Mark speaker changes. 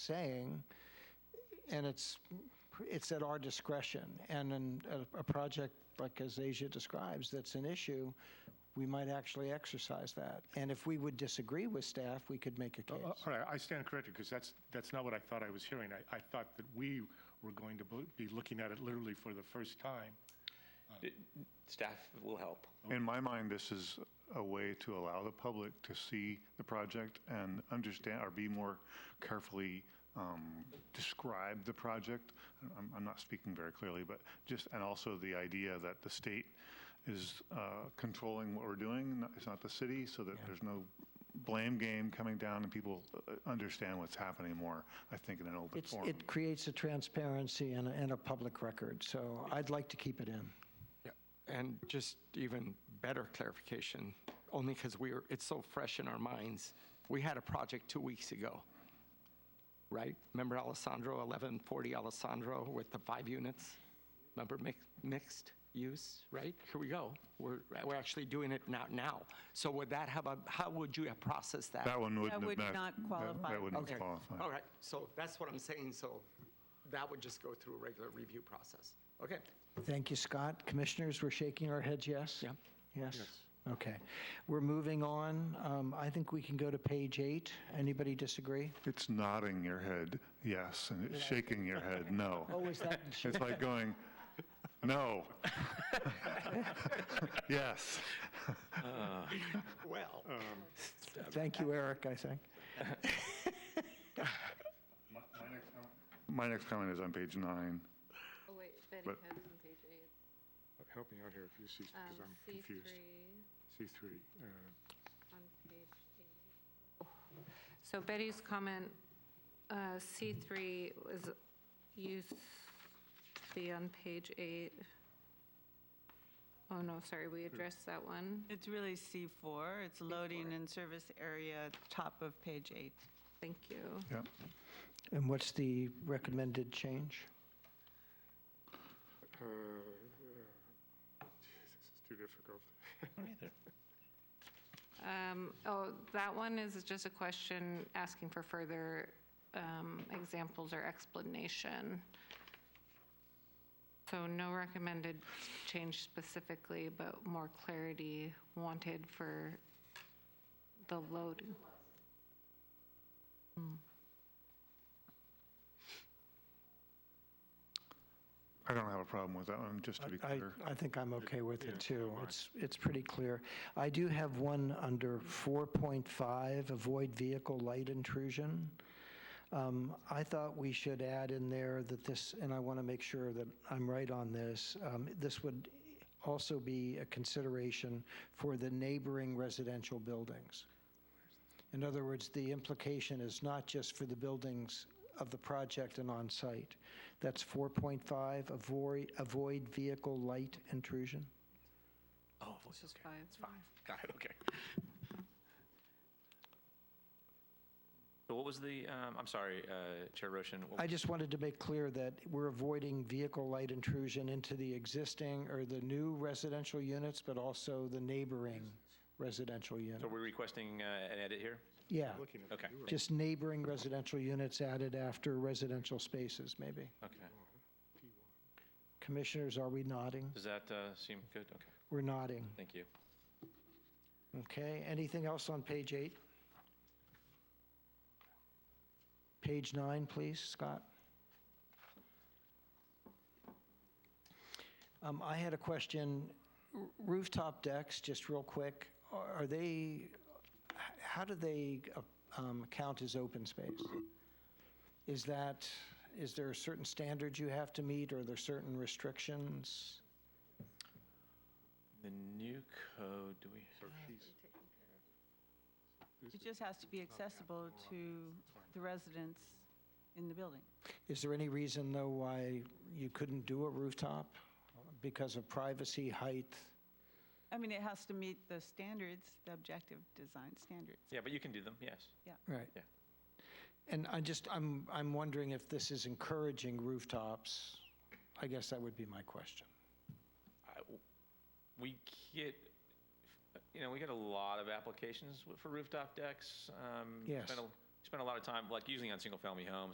Speaker 1: saying, and it's, it's at our discretion. And in a, a project like as Asia describes, that's an issue, we might actually exercise that. And if we would disagree with staff, we could make a
Speaker 2: Uh,
Speaker 1: case.
Speaker 2: All right, I stand corrected, because that's, that's not what I thought I was hearing. I, I thought that we were going to bo- be looking at it literally for the first time.
Speaker 3: Staff will help.
Speaker 4: In my mind, this is a way to allow the public to see the project and understand, or be more carefully um, describe the project. I'm, I'm not speaking very clearly, but just, and also the idea that the state is uh, controlling what we're doing, not- it's not the city, so that there's no blame game coming down and people uh, understand what's happening more, I think, in an open
Speaker 1: It's,
Speaker 4: forum.
Speaker 1: it creates a transparency and a, and a public record, so I'd like to keep it in.
Speaker 5: And just even better clarification, only because we are, it's so fresh in our minds. We had a project two weeks ago, right? Remember Alessandro, 1140 Alessandro with the five units? Remember mix- mixed use, right? Here we go. We're, we're actually doing it now, now. So would that have a, how would you have processed that?
Speaker 4: That one wouldn't have
Speaker 6: would
Speaker 4: met-
Speaker 6: not
Speaker 4: that-
Speaker 6: qualify.
Speaker 4: That wouldn't
Speaker 5: Okay,
Speaker 4: qualify.
Speaker 5: all right. So that's what I'm saying. So that would just go through a regular review process. Okay.
Speaker 1: Thank you, Scott. Commissioners, we're shaking our heads, yes?
Speaker 5: Yeah.
Speaker 1: Yes? Okay. We're moving on. Um, I think we can go to page eight. Anybody disagree?
Speaker 4: It's nodding your head, yes, and it's shaking your head, no.
Speaker 1: Oh, is that,
Speaker 4: It's like going, no. Yes.
Speaker 5: Well.
Speaker 1: thank you, Eric, I think.
Speaker 4: My next comment is on page nine.
Speaker 7: Oh, wait, Betty
Speaker 4: But-
Speaker 7: Code is on page eight.
Speaker 2: Help me out here if you see, because
Speaker 7: Um,
Speaker 2: I'm
Speaker 7: C
Speaker 2: confused.
Speaker 7: three
Speaker 2: C3. uh,
Speaker 7: on page eight. So Betty's comment, uh, C three was, used to be on page eight. Oh, no, sorry, we addressed that one.
Speaker 6: It's really C4. It's loading and service area, top of page eight.
Speaker 7: Thank you.
Speaker 4: Yep.
Speaker 1: And what's the recommended change?
Speaker 2: uh, uh, This is too difficult.
Speaker 7: Um, Oh, that one is just a question asking for further um, examples or explanation. So no recommended change specifically, but more clarity wanted for the load.
Speaker 4: I don't have a problem with that one, just to be
Speaker 1: I,
Speaker 4: clear.
Speaker 1: I think I'm okay with it, too. It's, it's pretty clear. I do have one under 4.5, avoid vehicle light intrusion. Um, I thought we should add in there that this, and I want to make sure that I'm right on this, um, this would also be a consideration for the neighboring residential buildings. In other words, the implication is not just for the buildings of the project and on-site. That's 4.5, avoid, avoid vehicle light intrusion.
Speaker 3: Oh,
Speaker 7: Just five.
Speaker 3: got it, okay. So what was the, um, I'm sorry, uh, Chair Roshan, what
Speaker 1: I just wanted to make clear that we're avoiding vehicle light intrusion into the existing or the new residential units, but also the neighboring residential
Speaker 3: so
Speaker 1: unit.
Speaker 3: we're requesting uh, an edit here?
Speaker 1: Yeah,
Speaker 2: Looking at
Speaker 3: Okay,
Speaker 1: just neighboring residential units added after residential spaces, maybe.
Speaker 3: okay.
Speaker 1: Commissioners, are we nodding?
Speaker 3: Does that uh, seem good? Okay,
Speaker 1: We're nodding.
Speaker 3: thank you.
Speaker 1: Okay, anything else on page eight? Page nine, please, Scott. Um, I had a question, R- rooftop decks, just real quick, are are they, h- how do they uh, um, count as open space? Is that, is there certain standards you have to meet, or are there certain restrictions?
Speaker 3: The new code, do we,
Speaker 6: It just has to be accessible to the residents in the building.
Speaker 1: Is there any reason, though, why you couldn't do a rooftop? Because of privacy, height?
Speaker 6: I mean, it has to meet the standards, the objective design standards.
Speaker 3: yeah, but you can do them, yes.
Speaker 1: Right.
Speaker 3: Yeah.
Speaker 1: And I just, I'm, I'm wondering if this is encouraging rooftops? I guess that would be my question.
Speaker 3: I- We get, you know, we get a lot of applications for rooftop decks. um,
Speaker 1: Yes.
Speaker 3: spend a- Spend a lot of time, like usually on single-family homes,